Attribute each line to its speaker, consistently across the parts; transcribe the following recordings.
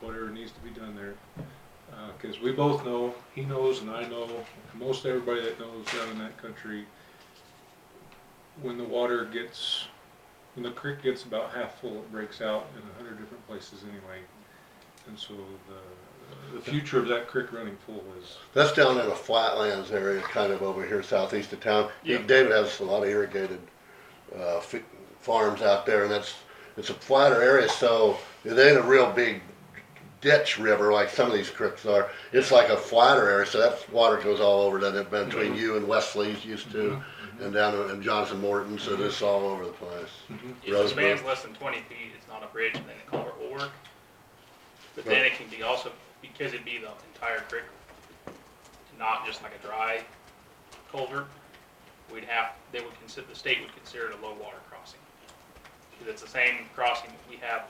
Speaker 1: whatever needs to be done there. Uh 'cause cause we both know, he knows and I know, and most everybody that knows out in that country, when the water gets, when the creek gets about half full, it breaks out in a hundred different places anyway. And so the, the future of that creek running full is,
Speaker 2: That's down in the flatlands area, kind of over here southeast of town.
Speaker 1: Yeah.
Speaker 2: David has a lot of irrigated uh, fi- farms out there, and that's it's a flatter area, so it ain't a real big ditch river like some of these creeks are. It's like a flatter area, so that water goes all over that between
Speaker 3: Mm-hmm.
Speaker 2: you and Wesley's used to,
Speaker 1: mm-hmm.
Speaker 2: and down in- and Johnson Morton, so this
Speaker 3: Mm-hmm.
Speaker 2: all over the place.
Speaker 3: If the man's less than twenty feet, it's not a bridge, then the culvert will work. But then it can be also, because it'd be the entire creek, not just like a dry culvert, we'd have, they would consider, the state would consider it a low water crossing. Because it's the same crossing that we have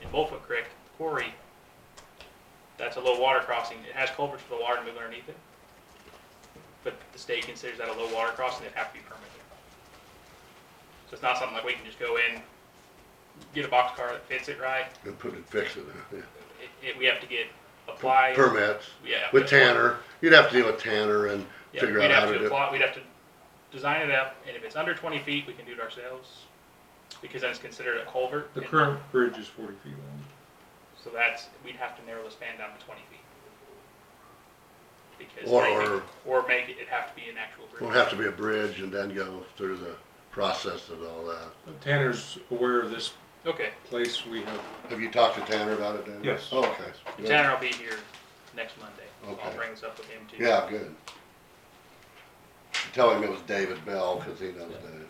Speaker 3: in Bullfoot Creek Quarry. That's a low water crossing. It has culverts for the water to move underneath it. But the state considers that a low water crossing, it'd have to be permitted. So it's not something like we can just go in, get a box car that fits it right.
Speaker 2: And put it, fix it. yeah.
Speaker 3: It, it, we have to get, apply.
Speaker 2: Permits
Speaker 3: Yeah.
Speaker 2: with Tanner. You'd have to deal with Tanner and
Speaker 3: Yeah,
Speaker 2: figure
Speaker 3: we'd
Speaker 2: out how
Speaker 3: have
Speaker 2: to
Speaker 3: to
Speaker 2: do. it.
Speaker 3: apply, we'd have to design it up, and if it's under twenty feet, we can do it ourselves. Because then it's considered a culvert.
Speaker 1: the
Speaker 3: and-
Speaker 1: current bridge is forty feet long.
Speaker 3: So that's, we'd have to narrow the span down to twenty feet. Because
Speaker 2: Or-
Speaker 3: I think- or make it, it'd have to be an actual bridge.
Speaker 2: Won't have to be a bridge and then go through the process and all that.
Speaker 1: Tanner's aware of this
Speaker 3: Okay,
Speaker 1: place, we have
Speaker 2: Have you talked to Tanner about it, David?
Speaker 1: Yes.
Speaker 2: Oh, Okay.
Speaker 3: and Tanner will be here next Monday. I'll
Speaker 2: Okay.
Speaker 3: bring this up with him too.
Speaker 2: Yeah, good. Tell him it was David Bell, cause he knows David.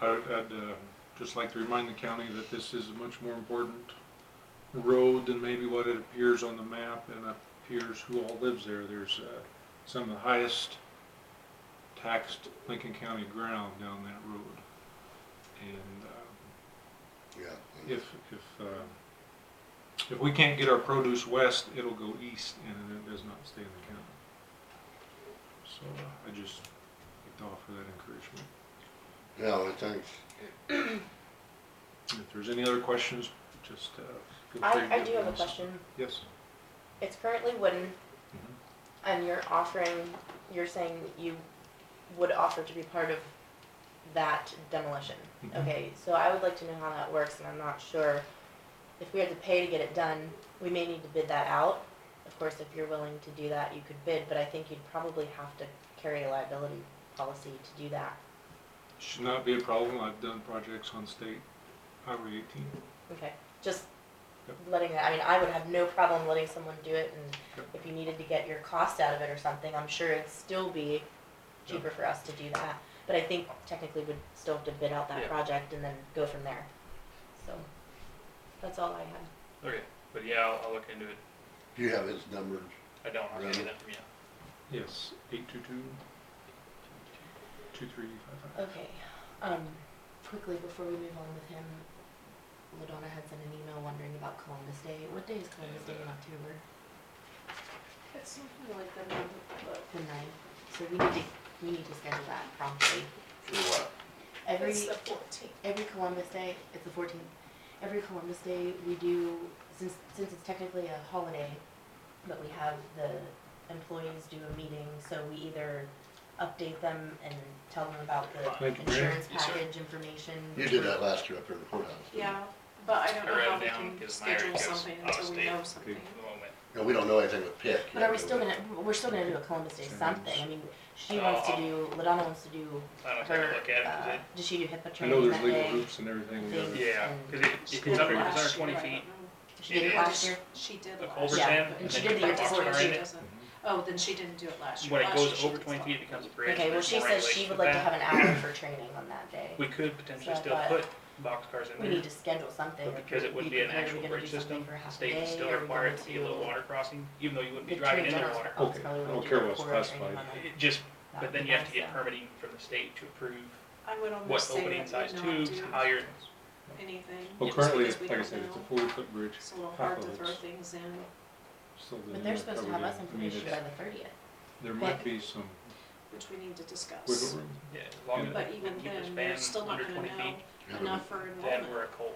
Speaker 1: I would, I'd uh, just like to remind the county that this is a much more important road than maybe what it appears on the map and appears who all lives there. There's uh, some of the highest taxed Lincoln County ground down that road. And uh,
Speaker 2: Yeah.
Speaker 1: if, if, uh, if we can't get our produce west, it'll go east and it does not stay in the county. So uh, I just like to offer that encouragement.
Speaker 2: Yeah, well, thanks.
Speaker 1: If there's any other questions, just uh, feel free to
Speaker 4: I,
Speaker 1: give
Speaker 4: I do have a
Speaker 1: us-
Speaker 4: question.
Speaker 1: Yes.
Speaker 4: It's currently wooden,
Speaker 1: Mhm.
Speaker 4: and you're offering, you're saying you would offer to be part of that demolition.
Speaker 1: Mhm.
Speaker 4: Okay, so I would like to know how that works, and I'm not sure. If we had to pay to get it done, we may need to bid that out. Of course, if you're willing to do that, you could bid, but I think you'd probably have to carry a liability policy to do that.
Speaker 1: Should not be a problem. I've done projects on state highway eighteen.
Speaker 4: Okay, just
Speaker 1: Yep.
Speaker 4: letting that, I mean, I would have no problem letting someone do it, and
Speaker 1: Yep.
Speaker 4: if you needed to get your cost out of it or something, I'm sure it'd still be cheaper for us to do that. But I think technically we'd still have to bid out that
Speaker 3: Yeah.
Speaker 4: project and then go from there. So, that's all I had.
Speaker 3: Okay, but yeah, I'll, I'll look into it.
Speaker 2: Do you have his number?
Speaker 3: I don't, I'll get
Speaker 2: Really?
Speaker 3: that from you.
Speaker 1: Yes, eight two two, two three five five.
Speaker 4: Okay, um, quickly before we move on with him, Ladonna had sent an email wondering about Columbus Day. What day is Columbus Day in October?
Speaker 5: It's something like that, but
Speaker 4: The ninth. So we need to, we need to schedule that promptly.
Speaker 2: For what?
Speaker 4: Every.
Speaker 5: it's the fourteenth.
Speaker 4: every Columbus Day, it's the fourteenth, every Columbus Day, we do, since, since it's technically a holiday, but we have the employees do a meeting, so we either update them and tell them about the
Speaker 1: Thank you, Mary.
Speaker 4: insurance
Speaker 3: Yes, sir.
Speaker 4: package information.
Speaker 2: You did that last year up here in the courthouse.
Speaker 5: Yeah, but I don't
Speaker 3: I
Speaker 5: know
Speaker 3: wrote
Speaker 5: how
Speaker 3: it
Speaker 5: we
Speaker 3: down
Speaker 5: can
Speaker 3: 'cause Larry
Speaker 5: schedule
Speaker 3: goes
Speaker 5: something
Speaker 3: out of
Speaker 5: until we
Speaker 3: state.
Speaker 5: know
Speaker 3: In
Speaker 5: something.
Speaker 3: the moment.
Speaker 2: And we don't know anything with Pitt.
Speaker 4: But
Speaker 2: yet,
Speaker 4: are we
Speaker 2: do
Speaker 4: still gonna, we're still gonna do a Columbus Day
Speaker 1: Same.
Speaker 4: something, I mean, she
Speaker 3: Uh,
Speaker 4: wants to
Speaker 3: I'll-
Speaker 4: do, Ladonna wants to do
Speaker 3: I don't take
Speaker 4: her,
Speaker 3: a look at
Speaker 4: uh,
Speaker 3: it,
Speaker 4: does she do HIPAA
Speaker 1: I know
Speaker 4: training
Speaker 1: there's
Speaker 4: that
Speaker 1: legal
Speaker 4: day?
Speaker 1: hoops and everything. we
Speaker 4: Things.
Speaker 1: gotta-
Speaker 3: because it, yeah, because it, it's under, it's under twenty feet.
Speaker 4: She did it
Speaker 3: it
Speaker 4: last year,
Speaker 5: She did
Speaker 3: The
Speaker 5: last
Speaker 3: culvert's
Speaker 5: year.
Speaker 4: Yeah,
Speaker 3: in,
Speaker 4: and
Speaker 3: and
Speaker 4: she
Speaker 3: then
Speaker 4: did the
Speaker 3: you put a
Speaker 4: year
Speaker 3: box
Speaker 4: before,
Speaker 3: car
Speaker 4: she
Speaker 3: in it.
Speaker 1: Mm-hmm.
Speaker 5: doesn't. Oh, then she didn't do it last year.
Speaker 3: When it
Speaker 5: Last year
Speaker 3: goes
Speaker 5: she
Speaker 3: over
Speaker 5: did
Speaker 3: twenty
Speaker 5: this
Speaker 3: feet, it
Speaker 5: one.
Speaker 3: becomes a bridge.
Speaker 4: okay, well,
Speaker 3: there's
Speaker 4: she
Speaker 3: more
Speaker 4: says she
Speaker 3: regulations
Speaker 4: would
Speaker 3: with
Speaker 4: like to
Speaker 3: that.
Speaker 4: have an hour for training on that day.
Speaker 3: We could potentially
Speaker 4: So I
Speaker 3: still
Speaker 4: thought-
Speaker 3: put box cars in
Speaker 4: We
Speaker 3: there.
Speaker 4: need to schedule something.
Speaker 3: But because it would be an actual bridge system, the state would still require it to be a low water crossing, even though you wouldn't be driving in the water.
Speaker 1: Okay, I don't care what's classified.
Speaker 3: It just, but then you have to get permitting from the state to approve
Speaker 5: I would almost
Speaker 3: what
Speaker 5: say that
Speaker 3: opening
Speaker 5: we
Speaker 3: size
Speaker 5: not
Speaker 3: tubes,
Speaker 5: do
Speaker 3: how you're,
Speaker 5: Anything.
Speaker 1: Well,
Speaker 5: just
Speaker 1: currently,
Speaker 5: because
Speaker 1: it's-
Speaker 5: we
Speaker 1: like I
Speaker 5: don't
Speaker 1: said, it's a
Speaker 5: know.
Speaker 1: forty foot bridge.
Speaker 5: It's a little hard to
Speaker 1: half of
Speaker 5: throw
Speaker 1: it's
Speaker 5: things in.
Speaker 1: still
Speaker 4: But
Speaker 1: not
Speaker 4: they're supposed to have
Speaker 1: covered
Speaker 4: us
Speaker 1: yet. I mean,
Speaker 4: information by
Speaker 1: it's-
Speaker 4: the thirtieth.
Speaker 1: There might be some
Speaker 5: which we need to
Speaker 1: wiggle
Speaker 5: discuss.
Speaker 1: room.
Speaker 3: yeah, as long as
Speaker 5: But even
Speaker 3: you
Speaker 5: then,
Speaker 3: can
Speaker 5: we're
Speaker 3: span
Speaker 5: still not
Speaker 3: under
Speaker 5: gonna
Speaker 3: twenty feet,
Speaker 5: know enough for
Speaker 3: then
Speaker 5: enrollment.
Speaker 3: we're a cult.